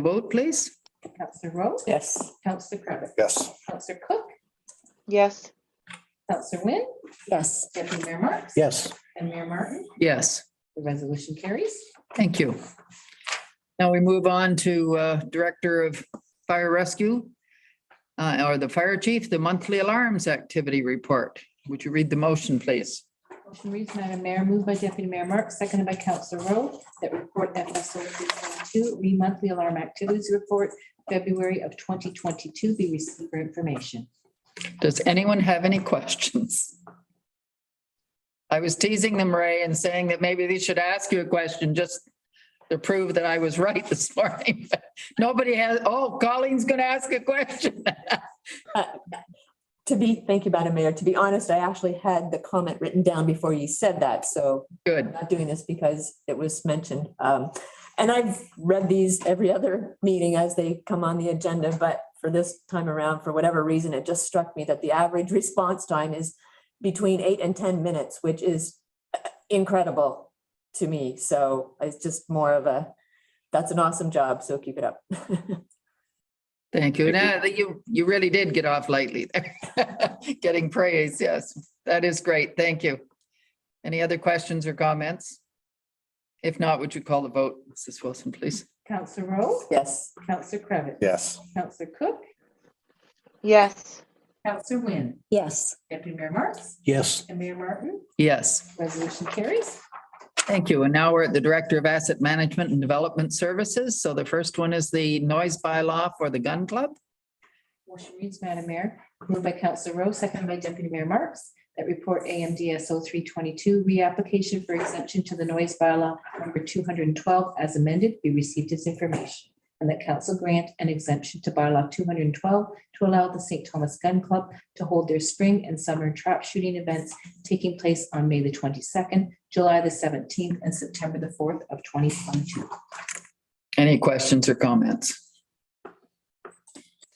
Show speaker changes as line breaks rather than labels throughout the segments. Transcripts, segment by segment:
vote, please?
Counselor Rowe,
Yes.
Counselor Cravitt,
Yes.
Counselor Cook,
yes,
Counselor Wynn,
Yes.
Deputy Mayor Marks.
Yes.
And Mayor Martin,
Yes,
the resolution carries.
thank you. Now we move on to uh, Director of Fire Rescue uh, or the Fire Chief, the monthly alarms activity report. Would you read the motion, please?
Motion reads, Madam Mayor, moved by Deputy Mayor Marks, seconded by Counselor Rowe, that report FSO three seven two, re-monthly alarm activities report, February of twenty twenty-two, be received for information.
Does anyone have any questions? I was teasing them, Ray, and saying that maybe they should ask you a question just to prove that I was right this morning. But Nobody has, oh, Colleen's going to ask a question.
To be, thank you, Madam Mayor. To be honest, I actually had the comment written down before you said that, so I'm
Good.
not doing this because it was mentioned. Um, and I've read these every other meeting as they come on the agenda, but for this time around, for whatever reason, it just struck me that the average response time is between eight and ten minutes, which is uh, incredible to me. So it's just more of a, that's an awesome job, so keep it up.
Thank you. Now, you, you really did get off lightly there. Getting praise, yes. That is great. Thank you. Any other questions or comments? If not, would you call the vote, Mrs. Wilson, please?
Counselor Rowe,
Yes.
Counselor Cravitt.
Yes.
Counselor Cook,
yes,
Counselor Wynn,
Yes.
Deputy Mayor Marks,
Yes.
and Mayor Martin,
Yes.
resolution carries.
Thank you. And now we're at the Director of Asset Management and Development Services. So the first one is the noise bylaw for the gun club.
Motion reads, Madam Mayor, moved by Counselor Rowe, seconded by Deputy Mayor Marks, that report AMDS 322 reapplication for exemption to the noise bylaw number two hundred and twelve as amended be received as information. And that council grant an exemption to bylaw two hundred and twelve to allow the St. Thomas Gun Club to hold their spring and summer trap shooting events taking place on May the twenty-second, July the seventeenth, and September the fourth of twenty twenty-two.
Any questions or comments?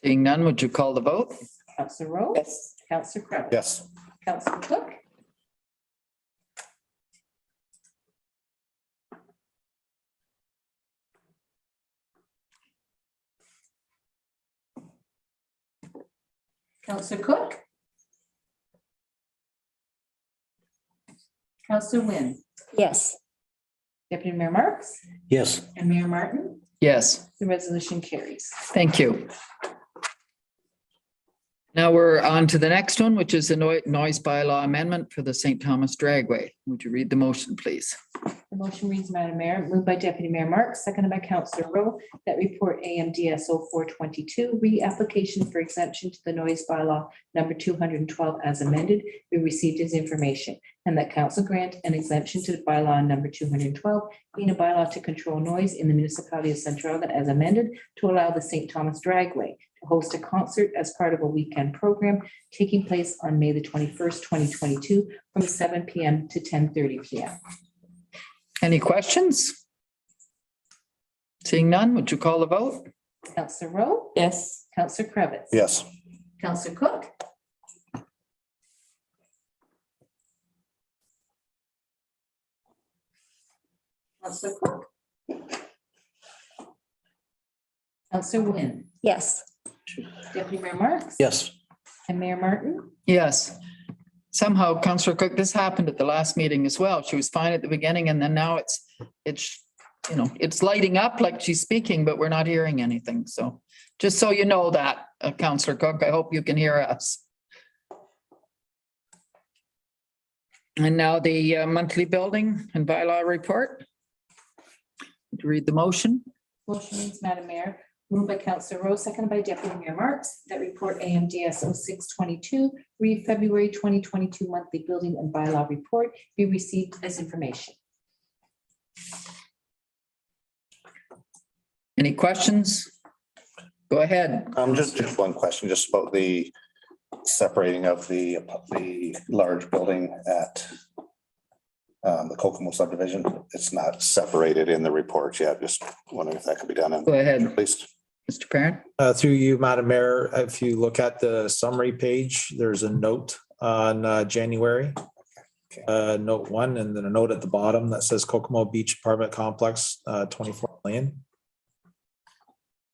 Seeing none, would you call the vote?
Counselor Rowe,
Yes.
Counselor Cravitt.
Yes.
Counselor Cook. Counselor Cook. Counselor Wynn.
Yes.
Deputy Mayor Marks
Yes.
and Mayor Martin,
Yes,
the resolution carries.
thank you. Now we're on to the next one, which is the noi- noise bylaw amendment for the St. Thomas Dragway. Would you read the motion, please?
The motion reads, Madam Mayor, moved by Deputy Mayor Marks, seconded by Councillor Rowe, that report AMDS 422 reapplication for exemption to the noise bylaw number two hundred and twelve as amended, be received as information, and that council grant an exemption to the bylaw number two hundred and twelve, being a bylaw to control noise in the municipality of Centralia as amended, to allow the St. Thomas Dragway to host a concert as part of a weekend program taking place on May the twenty-first, twenty twenty-two, from seven P M to ten thirty P M.
Any questions? Seeing none, would you call the vote?
Counselor Rowe,
Yes.
Counselor Cravitz.
Yes.
Counselor Cook. Counselor Cook. Counselor Wynn,
Yes.
Deputy Mayor Marks.
Yes.
And Mayor Martin,
Yes. Somehow, Counselor Cook, this happened at the last meeting as well. She was fine at the beginning and then now it's, it's, you know, it's lighting up like she's speaking, but we're not hearing anything. So just so you know that, uh, Counselor Cook, I hope you can hear us. And now the uh, monthly building and bylaw report. Would you Read the motion.
motion reads, Madam Mayor, moved by Counselor Rowe, seconded by Deputy Mayor Marks, that report AMDS 0622, read February twenty twenty-two monthly building and bylaw report be received as information.
Any questions? Go ahead.
Um, just, just one question, just about the separating of the, the large building at um, the Kokomo subdivision. It's not separated in the report yet. Just wondering if that could be done in,
Go ahead,
at least.
Mr. Parent.
Uh, Through you, Madam Mayor, if you look at the summary page, there's a note on uh, January. Uh, Note one, and then a note at the bottom that says Kokomo Beach Apartment Complex, uh, 24 million.